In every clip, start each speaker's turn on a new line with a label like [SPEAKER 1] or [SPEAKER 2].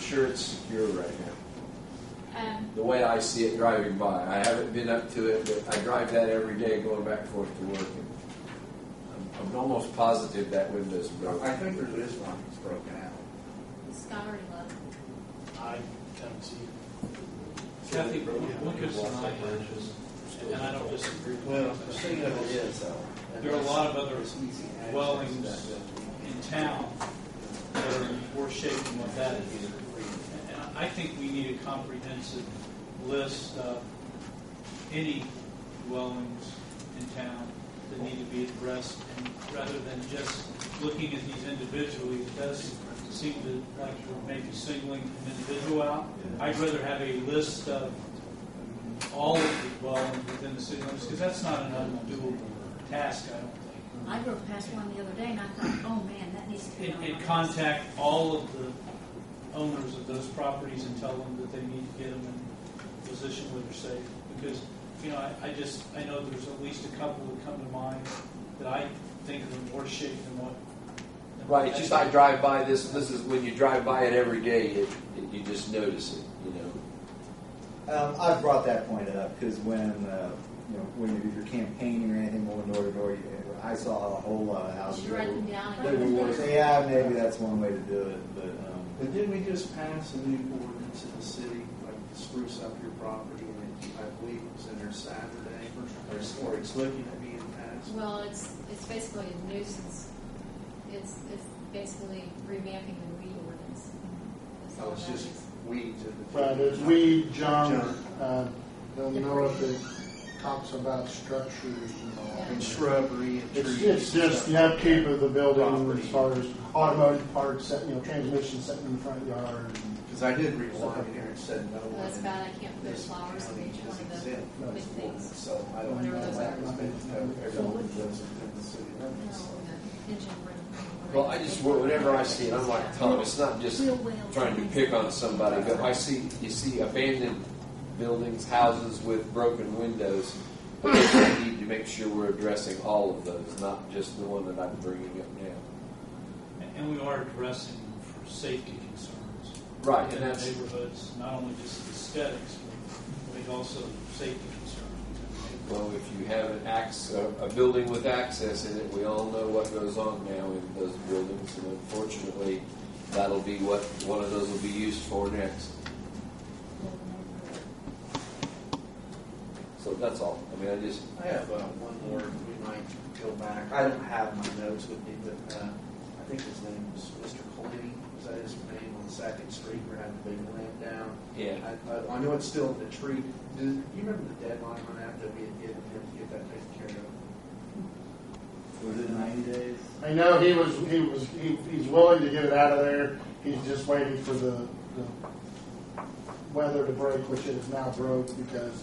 [SPEAKER 1] sure it's secure right now.
[SPEAKER 2] Um,
[SPEAKER 1] The way I see it driving by, I haven't been up to it, but I drive that every day going back and forth to work. And I'm, I'm almost positive that window's broken.
[SPEAKER 3] I think there is one that's broken out.
[SPEAKER 2] Discovery Love.
[SPEAKER 4] I don't see it.
[SPEAKER 5] Kathy, look at some eye edges, and I don't disagree
[SPEAKER 3] Well,
[SPEAKER 5] with
[SPEAKER 3] the
[SPEAKER 5] that.
[SPEAKER 3] thing of it is, though.
[SPEAKER 5] There are a lot of other
[SPEAKER 3] It's easy access
[SPEAKER 5] dwellings
[SPEAKER 3] to that building.
[SPEAKER 5] in town that are in worse shape than what that is. And I think we need a comprehensive list of any dwellings in town that need to be addressed, and rather than just looking at these individually, it does seem to, like you're maybe singling an individual out. I'd rather have a list of all of the dwellings within the city limits, because that's not an undoable task, I don't think
[SPEAKER 2] I drove past one the other day and I thought, oh man, that needs to be
[SPEAKER 5] and,
[SPEAKER 2] on
[SPEAKER 5] and
[SPEAKER 2] my list.
[SPEAKER 5] contact all of the owners of those properties and tell them that they need to get them in a position where they're safe. Because, you know, I, I just, I know there's at least a couple that come to mind that I think are in worse shape than what. than what
[SPEAKER 1] Right,
[SPEAKER 5] that
[SPEAKER 1] just
[SPEAKER 5] is.
[SPEAKER 1] I drive by this. This is when you drive by it every day, it, it, you just notice it. You know.
[SPEAKER 6] Um, I've brought that point up because when uh, you know when you do your campaigning or anything going door to door, you, I saw a whole lot of houses.
[SPEAKER 2] Just write
[SPEAKER 6] that
[SPEAKER 2] them
[SPEAKER 6] were-
[SPEAKER 2] down.
[SPEAKER 6] that were worse.
[SPEAKER 2] and-
[SPEAKER 6] Yeah, maybe that's one way to do it, but um,
[SPEAKER 3] But didn't we just pass a new ordinance in the city, like to spruce up your property, and it- I believe it was in there Saturday, or it's- or it's looking at being passed?
[SPEAKER 2] Well, it's, it's basically a nuisance. It's, it's basically revamping the weed ordinance. That's
[SPEAKER 3] So
[SPEAKER 2] all
[SPEAKER 3] Oh, it's
[SPEAKER 2] that
[SPEAKER 3] just
[SPEAKER 2] is.
[SPEAKER 3] weeds at the.
[SPEAKER 4] Right, there's weed, junk,
[SPEAKER 3] Junk.
[SPEAKER 4] uh, don't know if it talks about structures and all.
[SPEAKER 2] Yeah.
[SPEAKER 3] And shrubbery and
[SPEAKER 4] It's,
[SPEAKER 3] trees.
[SPEAKER 4] it's
[SPEAKER 3] and
[SPEAKER 4] just
[SPEAKER 3] stuff.
[SPEAKER 4] the upkeep of the building
[SPEAKER 3] Property.
[SPEAKER 4] as far as automotive parts, set- you know, transmission set in the front yard. and-
[SPEAKER 3] Because I did read one here and said no
[SPEAKER 2] Well,
[SPEAKER 3] one.
[SPEAKER 2] That's
[SPEAKER 3] in
[SPEAKER 2] bad, I can't put
[SPEAKER 3] this
[SPEAKER 2] flowers in
[SPEAKER 3] county
[SPEAKER 2] each one
[SPEAKER 3] is
[SPEAKER 2] of the
[SPEAKER 3] exempt from
[SPEAKER 2] big
[SPEAKER 3] this ordinance,
[SPEAKER 2] things.
[SPEAKER 3] So I don't
[SPEAKER 2] Whatever
[SPEAKER 3] know
[SPEAKER 2] those
[SPEAKER 3] why
[SPEAKER 2] are.
[SPEAKER 3] it's been, everyone lives within the city
[SPEAKER 2] No,
[SPEAKER 3] limits. so.
[SPEAKER 2] the engine room.
[SPEAKER 1] Well, I just whenever I see it, I'm like Tom. It's not just
[SPEAKER 2] Wheel well.
[SPEAKER 1] trying to pick on somebody, but I see you see abandoned buildings, houses with broken windows. We need to make sure we're addressing all of those, not just the one that I'm bringing up now.
[SPEAKER 5] And- And we are addressing them for safety concerns.
[SPEAKER 1] Right,
[SPEAKER 5] In
[SPEAKER 1] and
[SPEAKER 5] the
[SPEAKER 1] that's
[SPEAKER 5] neighborhoods, not only just aesthetics, but I think also safety concerns.
[SPEAKER 1] well, if you have an ax a, a building with access in it, we all know what goes on now in those buildings, and unfortunately, that'll be what one of those will be used for next. So that's all. I mean, I just
[SPEAKER 3] I have uh, one more, we might go back, I don't have my notes with me, but uh, I think his name was Mr. Colby, was that his name on Second Street, we're having a big ramp down.
[SPEAKER 1] yeah.
[SPEAKER 3] I- I, I know it's still in the tree, do you remember the deadline on that, that we had given him to get that taken care of?
[SPEAKER 6] was it ninety days?
[SPEAKER 4] I know he was, he was, he, he's willing to get it out of there, he's just waiting for the, the weather to break, which it is now broke because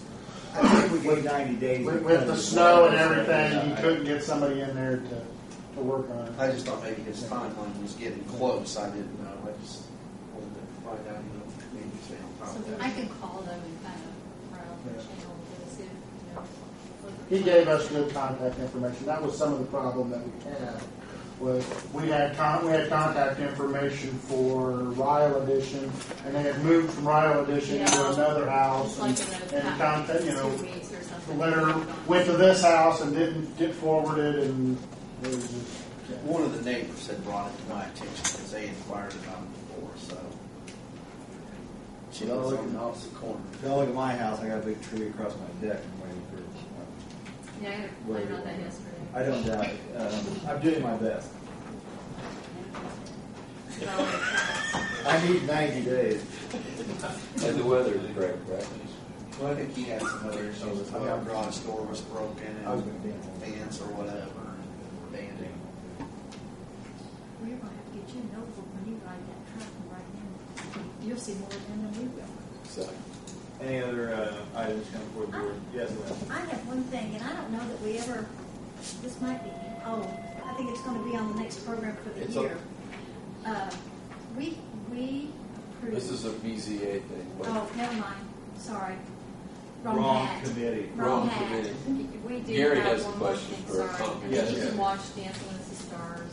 [SPEAKER 6] I think we gave ninety days.
[SPEAKER 4] with, with the
[SPEAKER 6] because-
[SPEAKER 4] snow and everything,
[SPEAKER 3] Yeah,
[SPEAKER 4] he
[SPEAKER 3] I-
[SPEAKER 4] couldn't get somebody in there to, to work on it.
[SPEAKER 3] I just thought maybe his timeline was getting close, I didn't know, I just wanted to find out, you know, maybe stay on top
[SPEAKER 2] So
[SPEAKER 3] of that.
[SPEAKER 2] I can call them and kind of run up the channel to see if, you know. what-
[SPEAKER 4] He gave us good contact information. That was some of the problem that we had. Was we had con- we had contact information for Ryle Edition, and they had moved from Ryle Edition to
[SPEAKER 2] Yeah.
[SPEAKER 4] another house,
[SPEAKER 2] It's like
[SPEAKER 4] and,
[SPEAKER 2] in those
[SPEAKER 4] and contact you know
[SPEAKER 2] two weeks or
[SPEAKER 4] the
[SPEAKER 2] something.
[SPEAKER 4] letter went to this house and didn't get forwarded, and it was just. yeah.
[SPEAKER 3] One of the neighbors had brought it to my attention because they inquired about it before, so. She lives on the opposite corner.
[SPEAKER 6] Don't look at my house. I got a big tree across my deck. I'm waiting for. Um,
[SPEAKER 2] Yeah, I had a complaint on that yesterday.
[SPEAKER 6] I don't doubt it. Um, I'm doing my best.
[SPEAKER 2] So,
[SPEAKER 6] I need ninety days.
[SPEAKER 1] And the weather is great, right?
[SPEAKER 3] Well, I think he had some other issues. I mean, our garage door was broken
[SPEAKER 6] I was
[SPEAKER 3] and
[SPEAKER 6] gonna dance.
[SPEAKER 3] fence or whatever, banding.
[SPEAKER 2] We're gonna have to get you an over when you ride that truck and ride in. You'll see more of them than we will.
[SPEAKER 1] So.
[SPEAKER 6] Any other uh, items come forward? Yes, ma'am.
[SPEAKER 7] I have one thing, and I don't know that we ever, this might be, oh, I think it's gonna be on the next program for the
[SPEAKER 1] It's on-
[SPEAKER 7] year. Uh, We, we approved.
[SPEAKER 1] This is a BZA thing, but
[SPEAKER 7] Oh, never mind, sorry.
[SPEAKER 6] Wrong
[SPEAKER 7] hat.
[SPEAKER 6] committee.
[SPEAKER 1] Wrong
[SPEAKER 7] Wrong hat.
[SPEAKER 1] committee.
[SPEAKER 2] We do
[SPEAKER 1] Gary
[SPEAKER 2] have
[SPEAKER 1] has a
[SPEAKER 2] one more
[SPEAKER 1] question
[SPEAKER 2] thing,
[SPEAKER 1] for a
[SPEAKER 2] sorry.
[SPEAKER 1] comment.
[SPEAKER 2] And
[SPEAKER 6] Yes,
[SPEAKER 2] you
[SPEAKER 6] yes.
[SPEAKER 2] can watch Dancing with the Stars.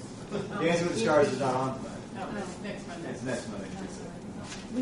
[SPEAKER 6] Dancing with the Stars is not on tonight.
[SPEAKER 2] Oh,
[SPEAKER 6] It's next Monday.
[SPEAKER 2] I'm sorry.